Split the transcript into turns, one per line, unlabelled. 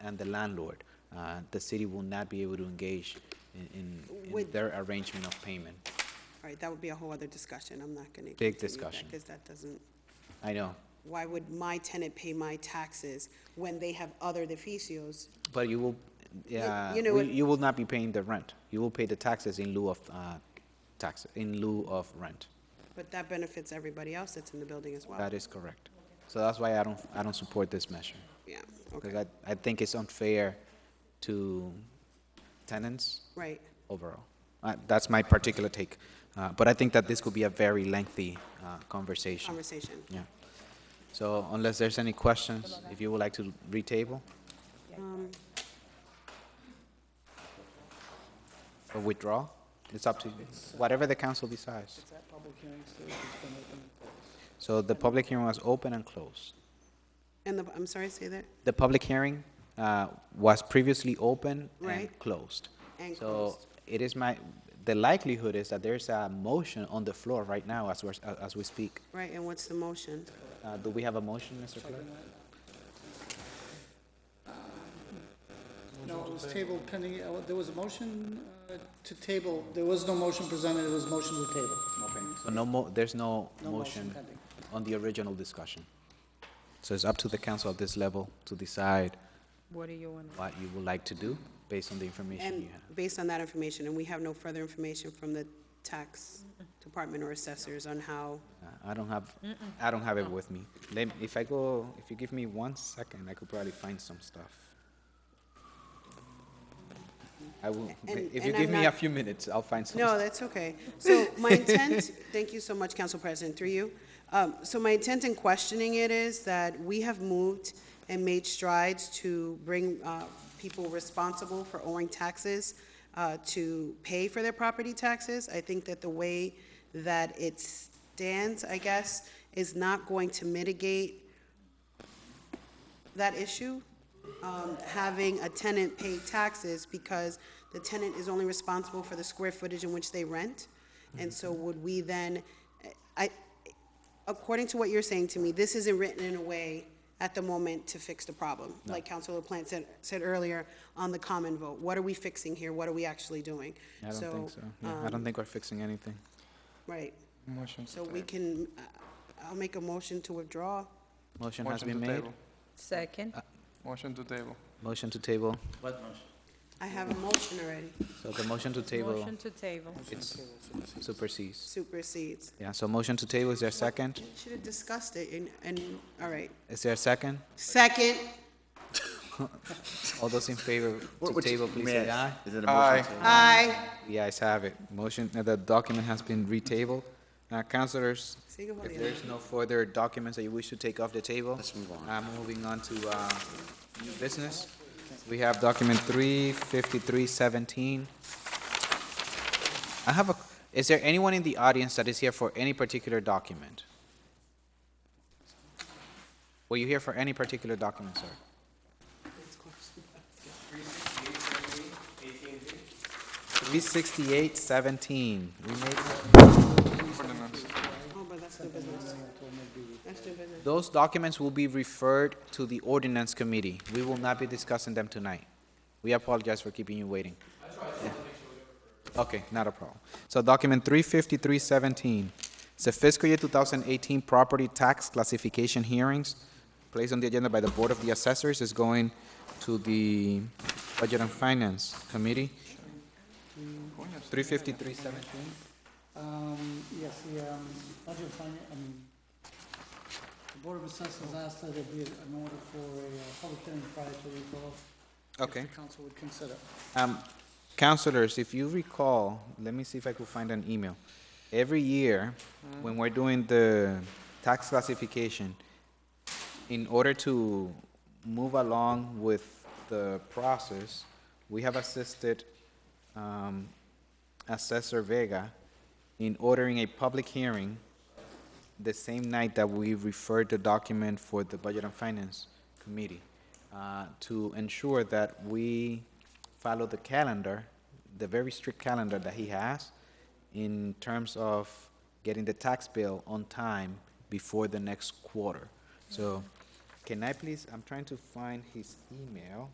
and the landlord. Uh, The city will not be able to engage in- in, in
Would-
their arrangement of payment.
All right, that would be a whole other discussion, I'm not gonna.
Big discussion.
Because that doesn't,
I know,
why would my tenant pay my taxes when they have other deficios?
but you will, yeah,
you know
we-
what-
you will not be paying the rent. You will pay the taxes in lieu of, uh, taxes, in lieu of rent.
But that benefits everybody else that's in the building as well.
That is correct. So that's why I don't, I don't support this measure.
Yeah,
Because
okay,
I, I think it's unfair to tenants
right.
overall. Uh, That's my particular take. Uh, But I think that this could be a very lengthy uh, conversation.
Conversation.
Yeah. So unless there's any questions, if you would like to retable
Um,
or withdraw, it's up to you, whatever the council decides.
Is that public hearing still, it's been open?
So the public hearing was open and closed.
And the, I'm sorry, say that?
The public hearing uh, was previously open and
Right.
closed.
And
So
closed.
it is my, the likelihood is that there's a motion on the floor right now as we're, as we speak.
Right, and what's the motion?
Uh, Do we have a motion, Mr. Clerk?
No, it was tabled pending, uh, there was a motion uh, to table, there was no motion presented, it was motion to table.
So no mo, there's no
No motion
motion
pending.
on the original discussion. So it's up to the council at this level to decide
What do you want?
what you would like to do based on the information
And
you have.
based on that information, and we have no further information from the tax department or assessors on how,
Uh, I don't have, I don't have it with me. Let, if I go, if you give me one second, I could probably find some stuff. I will,
And-
if you
and
give
I'm
me a
not-
few minutes, I'll find some.
No,
stuff.
that's okay. So my intent, thank you so much, Council President, through you. Um, So my intent in questioning it is that we have moved and made strides to bring uh, people responsible for owing taxes uh, to pay for their property taxes. I think that the way that it stands, I guess, is not going to mitigate that issue, um, having a tenant pay taxes because the tenant is only responsible for the square footage in which they rent. And so would we then, I, according to what you're saying to me, this isn't written in a way at the moment to fix the problem. Like Councilor Plant said, said earlier on the common vote, what are we fixing here? What are we actually doing?
I don't think so. Yeah, I
um,
don't think we're fixing anything.
Right,
Motion.
so we can, uh, I'll make a motion to withdraw.
Motion has been made.
Second?
Motion to table.
Motion to table.
I have a motion already,
So the motion to table,
Motion to table.
it's supersedes.
supersedes.
Yeah, so motion to table, is there a second?
You Should have discussed it and, and, all right.
Is there a second?
Second,
All those in favor to table, please say aye.
Is it a
Aye.
motion? to-
aye.
The ayes have it. Motion, uh, the document has been retabled. Uh, councilors,
Sigue
if
jodiendo.
there's no further documents that you wish to take off the table.
Let's move on.
I'm moving on to, uh, new business. We have document three fifty-three seventeen. I have a, is there anyone in the audience that is here for any particular document? Were you here for any particular document, sir? Three sixty-eight seventeen. We made
Oh, but that's new business. That's new business.
Those documents will be referred to the ordinance committee. We will not be discussing them tonight. We apologize for keeping you waiting. Okay, not a problem. So document three fifty-three seventeen, it's the fiscal year two thousand eighteen property tax classification hearings placed on the agenda by the Board of the Assessors is going to the Budget and Finance Committee. Three fifty-three seventeen,
Um, Yes, the um, budget finance, I mean, the Board of Assessors asked that it be an order for a uh, public hearing prior to recall.
okay.
If the council would consider.
Um, counselors, if you recall, let me see if I could find an email. Every year, when we're doing the tax classification, in order to move along with the process, we have assisted, um, Assessor Vega in ordering a public hearing the same night that we referred the document for the Budget and Finance Committee uh, to ensure that we follow the calendar, the very strict calendar that he has in terms of getting the tax bill on time before the next quarter. So can I please, I'm trying to find his email.